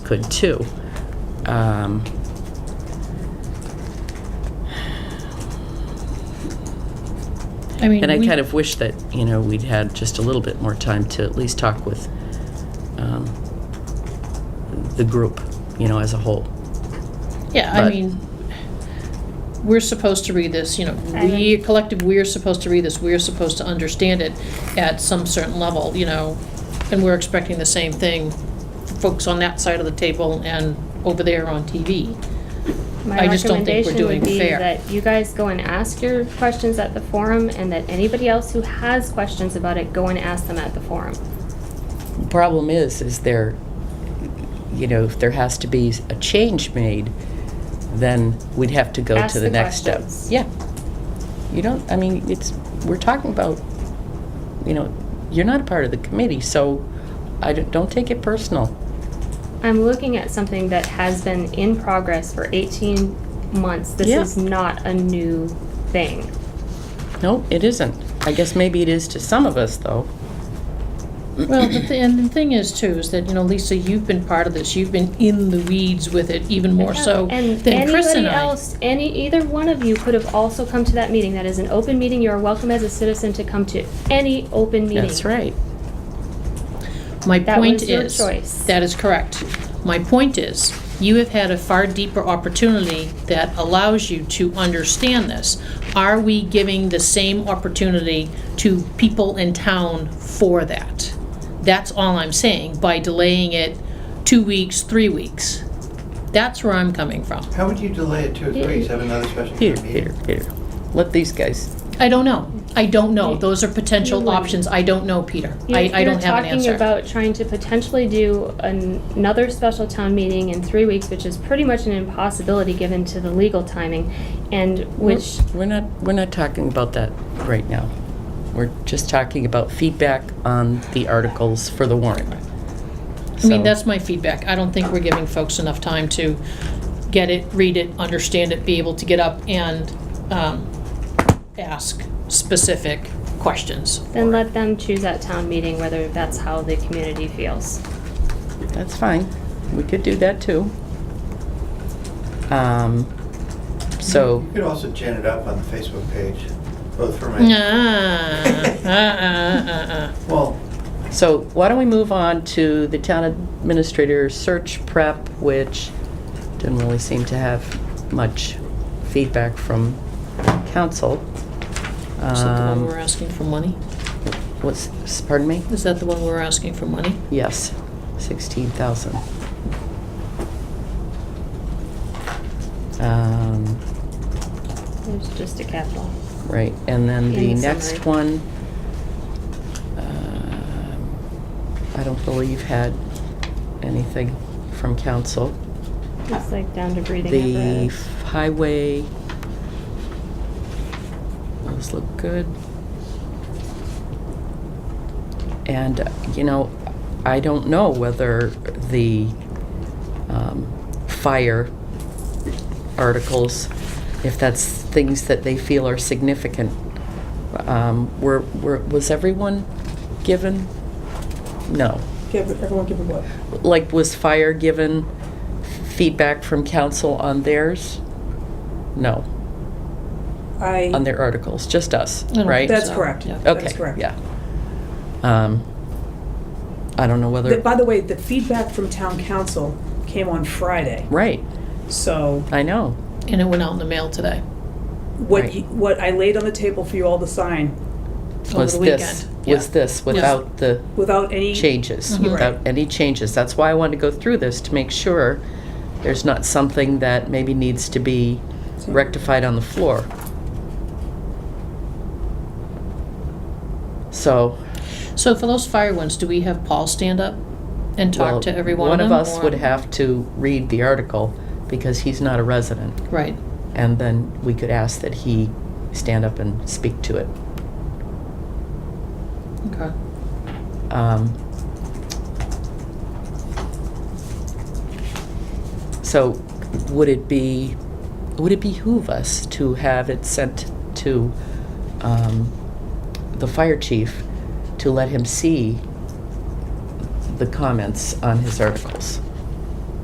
could too. Um, I mean, And I we- kind of wish that, you know, we'd had just a little bit more time to at least talk with um, the group, you know, as a whole. Yeah, I but- mean, we're supposed to read this, you know, I don't- we, collective, we're supposed to read this, we're supposed to understand it at some certain level, you know, and we're expecting the same thing, folks on that side of the table and over there on TV. I My just don't think we're recommendation doing would be fair. that you guys go and ask your questions at the forum, and that anybody else who has questions about it, go and ask them at the forum. Problem is, is there, you know, if there has to be a change made, then we'd have to go Ask to the the next step. questions. Yeah. You don't, I mean, it's, we're talking about, you know, you're not a part of the committee, so I don't, don't take it personal. I'm looking at something that has been in progress for 18 months. This Yeah. is not a new thing. No, it isn't. I guess maybe it is to some of us, though. Well, the thi- and the thing is too, is that, you know, Lisa, you've been part of this, you've been in the weeds with it even more so And than Chris and anybody I. else, any, either one of you could have also come to that meeting. That is an open meeting. You are welcome as a citizen to come to any open meeting. That's right. My That point was your is, choice. that is correct. My point is, you have had a far deeper opportunity that allows you to understand this. Are we giving the same opportunity to people in town for that? That's all I'm saying, by delaying it two weeks, three weeks. That's where I'm coming from. How would you delay it two or three weeks, have another special Peter, town Peter, meeting? Peter. Let these guys. I don't know. I don't know. Those are You potential wouldn't. options. I don't know, Peter. You- I, I don't have an You're talking answer. about trying to potentially do an- another special town meeting in three weeks, which is pretty much an impossibility given to the legal timing, and which, We're not, we're not talking about that right now. We're just talking about feedback on the articles for the warrant. I mean, So- that's my feedback. I don't think we're giving folks enough time to get it, read it, understand it, be able to get up and um, ask specific questions. then let them choose at town meeting whether that's how the community feels. That's fine. We could do that, too. Um, So, You could also gin it up on the Facebook page, both for my, Ah, ah, ah, ah, well, so why don't we move on to the town administrator search prep, which didn't really seem to have much feedback from council. ah. Is that the one Um, we're asking for money? What's, pardon me? Is that the one we're asking for money? Yes, 16,000. Um, It's just a capital. Right, and then the In the next summary. one, um, I don't believe had anything from council. It's like down to breathing The apparatus. highway, those look good. And, uh, you know, I don't know whether the um, fire articles, if that's things that they feel are significant. Um, Were, were- was everyone given? No. Give, everyone give a what? Like, was fire given feedback from council on theirs? No, I. on their articles, just us, I don't right? think That's So, correct. yeah. That's correct. Okay, yeah. Um, I don't know The- whether, By the way, the feedback from town council came on Friday, right, so I know, And it went out in the mail today, what, Right. you- what I laid on the table for you all to sign over was this, the weekend. Yeah. was this, without the without any. changes, Mhm. without any changes. That's why I wanted to go through this, to make sure there's not something that maybe needs to be rectified on the floor. So, So for those fire ones, do we have Paul stand up and well, talk to every one of them? us or- would have to read the article, because he's not a resident. Right. And then we could ask that he stand up and speak to it. Okay. Um, So would it be, would it behoove us to have it sent to um, the fire chief to let him see the comments on his articles?